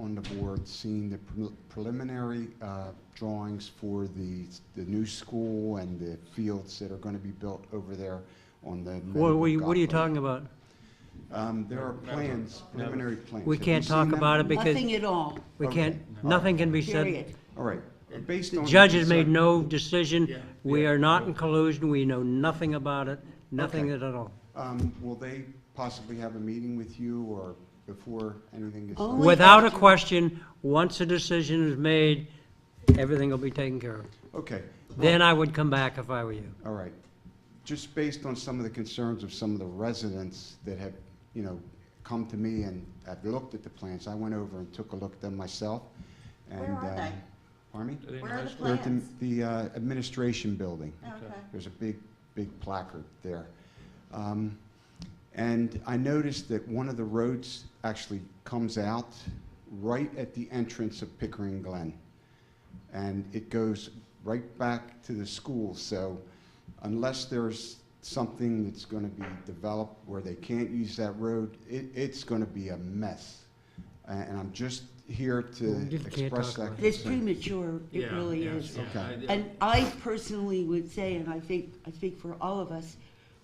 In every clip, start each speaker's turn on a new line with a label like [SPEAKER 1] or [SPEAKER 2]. [SPEAKER 1] on the board seen the pre- preliminary uh, drawings for the, the new school and the fields that are going to be built over there on the.
[SPEAKER 2] What were you,
[SPEAKER 1] Meadowbrook
[SPEAKER 2] what are you
[SPEAKER 1] Golf Lake.
[SPEAKER 2] talking about?
[SPEAKER 1] Um, there are plans, preliminary plans.
[SPEAKER 2] We
[SPEAKER 1] Have you
[SPEAKER 2] can't
[SPEAKER 1] seen
[SPEAKER 2] talk
[SPEAKER 1] them?
[SPEAKER 2] about it because
[SPEAKER 3] Nothing at all,
[SPEAKER 2] we
[SPEAKER 1] Okay.
[SPEAKER 2] can't, nothing can be said.
[SPEAKER 3] period.
[SPEAKER 1] All right, based on.
[SPEAKER 2] The
[SPEAKER 1] the
[SPEAKER 2] judge has made
[SPEAKER 1] consent-
[SPEAKER 2] no decision. We
[SPEAKER 4] yeah,
[SPEAKER 2] are not in collusion. We know nothing about it, nothing at
[SPEAKER 1] Okay.
[SPEAKER 2] all.
[SPEAKER 1] Um, will they possibly have a meeting with you or before anything gets
[SPEAKER 3] Oh,
[SPEAKER 1] done?
[SPEAKER 3] Only
[SPEAKER 2] Without a
[SPEAKER 3] after-
[SPEAKER 2] question, once a decision is made, everything will be taken care of.
[SPEAKER 1] Okay,
[SPEAKER 2] Then I would come back if I were you.
[SPEAKER 1] all right. Just based on some of the concerns of some of the residents that have, you know, come to me and have looked at the plans, I went over and took a look at them myself. and,
[SPEAKER 3] Where are
[SPEAKER 1] um,
[SPEAKER 3] they?
[SPEAKER 1] Pardon me?
[SPEAKER 4] in
[SPEAKER 3] Where
[SPEAKER 4] high
[SPEAKER 3] are the
[SPEAKER 4] school?
[SPEAKER 1] They're at the,
[SPEAKER 3] plans?
[SPEAKER 1] the uh, administration building.
[SPEAKER 3] Okay.
[SPEAKER 1] There's a big, big placard there. Um, And I noticed that one of the roads actually comes out right at the entrance of Pickering Glen. And it goes right back to the school, so unless there's something that's gonna be developed where they can't use that road, it, it's gonna be a mess. A- And I'm just here to
[SPEAKER 2] You can't
[SPEAKER 1] express
[SPEAKER 2] talk
[SPEAKER 1] that.
[SPEAKER 2] about
[SPEAKER 3] It's
[SPEAKER 1] concern.
[SPEAKER 3] premature, it
[SPEAKER 4] Yeah,
[SPEAKER 3] really
[SPEAKER 4] yeah,
[SPEAKER 3] is.
[SPEAKER 4] yeah,
[SPEAKER 1] Okay.
[SPEAKER 4] I-
[SPEAKER 3] And I personally would say, and I think, I speak for all of us,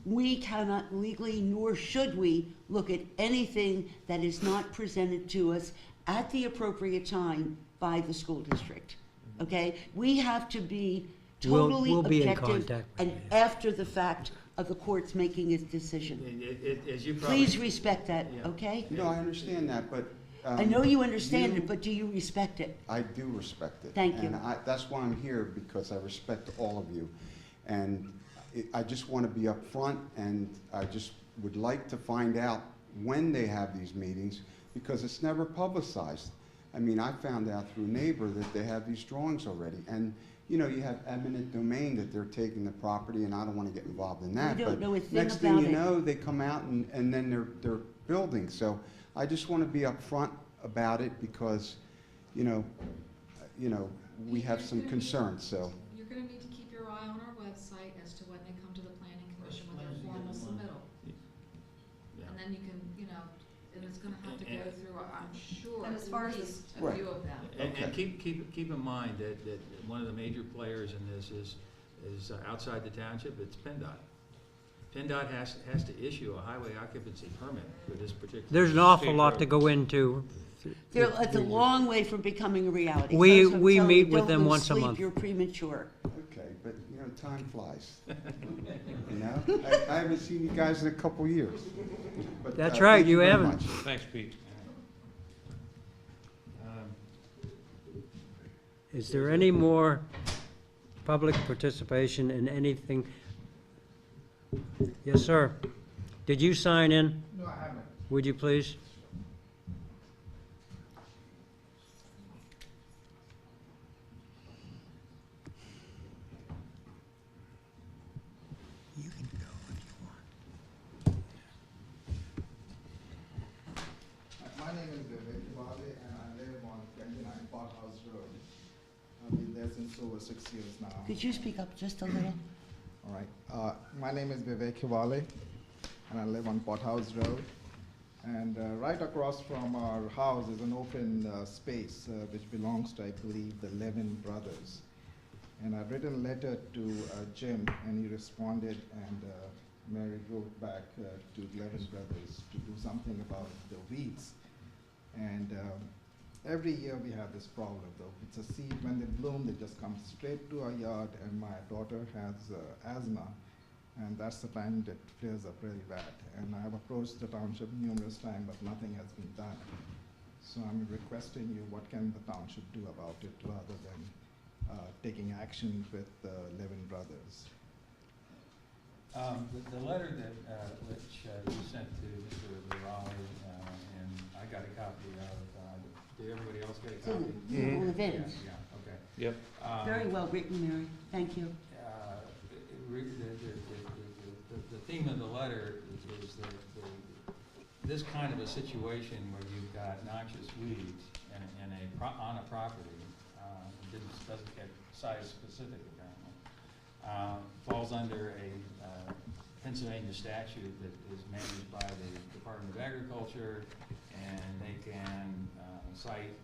[SPEAKER 3] we cannot legally, nor should we, look at anything that is not presented to us at the appropriate time by the school district,
[SPEAKER 4] Mm-hmm.
[SPEAKER 3] okay? We have to be
[SPEAKER 2] We'll-
[SPEAKER 3] totally
[SPEAKER 2] we'll be in
[SPEAKER 3] objective
[SPEAKER 2] contact with
[SPEAKER 3] and
[SPEAKER 2] you, yeah.
[SPEAKER 3] after the fact of the court's making its decision.
[SPEAKER 4] And it- it- As you probably.
[SPEAKER 3] Please respect that,
[SPEAKER 4] Yeah.
[SPEAKER 3] okay?
[SPEAKER 1] No, I understand that, but.
[SPEAKER 3] I
[SPEAKER 1] um,
[SPEAKER 3] know you understand
[SPEAKER 1] you-
[SPEAKER 3] it, but do you respect it?
[SPEAKER 1] I do respect it.
[SPEAKER 3] Thank you.
[SPEAKER 1] And I, that's why I'm here, because I respect all of you. And it- I just want to be upfront, and I just would like to find out when they have these meetings, because it's never publicized. I mean, I found out through neighbor that they have these drawings already. And, you know, you have eminent domain that they're taking the property, and I don't want to get involved in that.
[SPEAKER 3] We don't
[SPEAKER 1] but
[SPEAKER 3] know a thing
[SPEAKER 1] Next thing
[SPEAKER 3] about
[SPEAKER 1] you
[SPEAKER 3] it.
[SPEAKER 1] know, they come out and, and then they're, they're building. So I just want to be upfront about it, because, you know, you know, we have some concerns, so.
[SPEAKER 5] You're gonna need to keep your eye on our website as to when they come to the planning commission with their formal submittal.
[SPEAKER 4] Yeah.
[SPEAKER 5] And then you can, you know, and it's gonna have to
[SPEAKER 4] And-
[SPEAKER 5] go through, I'm sure,
[SPEAKER 6] And as far
[SPEAKER 5] at
[SPEAKER 6] as the-
[SPEAKER 5] least a
[SPEAKER 1] Right.
[SPEAKER 5] few of them.
[SPEAKER 4] And,
[SPEAKER 1] Okay.
[SPEAKER 4] and keep, keep, keep in mind that, that one of the major players in this is, is uh, outside the township, it's PennDOT. PennDOT has, has to issue a highway occupancy permit for this particular.
[SPEAKER 2] There's an awful
[SPEAKER 4] state
[SPEAKER 2] lot
[SPEAKER 4] road.
[SPEAKER 2] to go into.
[SPEAKER 3] They're, it's a long way from becoming a reality.
[SPEAKER 2] We-
[SPEAKER 3] Folks, I'm
[SPEAKER 2] we
[SPEAKER 3] telling you,
[SPEAKER 2] meet with
[SPEAKER 3] don't
[SPEAKER 2] them
[SPEAKER 3] lose
[SPEAKER 2] once a
[SPEAKER 3] sleep,
[SPEAKER 2] month.
[SPEAKER 3] You're premature.
[SPEAKER 1] Okay, but, you know, time flies. You know, I, I haven't seen you guys in a couple years. But,
[SPEAKER 2] That's
[SPEAKER 1] uh,
[SPEAKER 2] right,
[SPEAKER 1] thank
[SPEAKER 2] you
[SPEAKER 1] very
[SPEAKER 2] haven't.
[SPEAKER 1] much.
[SPEAKER 4] Thanks, Pete. Um,
[SPEAKER 2] Is there any more public participation in anything? Yes, sir. Did you sign in?
[SPEAKER 7] No, I haven't.
[SPEAKER 2] Would you please?
[SPEAKER 7] My name is Vivek Bali and I live on twenty-nine Park House Road. I've been there since over six years now.
[SPEAKER 3] Could you speak up just a little?
[SPEAKER 7] All right. Uh, my name is Vivek Hivale, and I live on Pothouse Road. And uh, right across from our house is an open uh, space uh, which belongs to, I believe, the Levin brothers. And I've written a letter to uh, Jim, and he responded, and uh, Mary wrote back uh, to the Levin brothers to do something about the weeds. And um, every year we have this problem though. It's a seed, when they bloom, they just come straight to our yard and my daughter has uh, asthma and that's the time that flares up really bad. And I have approached the township numerous times but nothing has been done. So I'm requesting you, what can the township do about it rather than uh, taking action with the Levin Brothers?
[SPEAKER 8] Um, the, the letter that, uh, which uh, you sent to Mr. Raleigh, uh, and I got a copy of, uh, did everybody else get a
[SPEAKER 3] It's in
[SPEAKER 8] copy?
[SPEAKER 3] the Journal
[SPEAKER 1] Mm-hmm.
[SPEAKER 3] of
[SPEAKER 8] Yeah,
[SPEAKER 3] Events.
[SPEAKER 8] Yeah, okay.
[SPEAKER 4] Yep.
[SPEAKER 8] Um,
[SPEAKER 3] Very well written, Mary. Thank you.
[SPEAKER 8] uh, it- it re- the, the, the- the, the- the theme of the letter is- is that the, this kind of a situation where you've got noxious weeds in, a- in a, pro- on a property, uh, it didn't, doesn't get size specific apparently, uh, falls under a, uh, Pennsylvania statute that is managed by the Department of Agriculture, and they can, uh, cite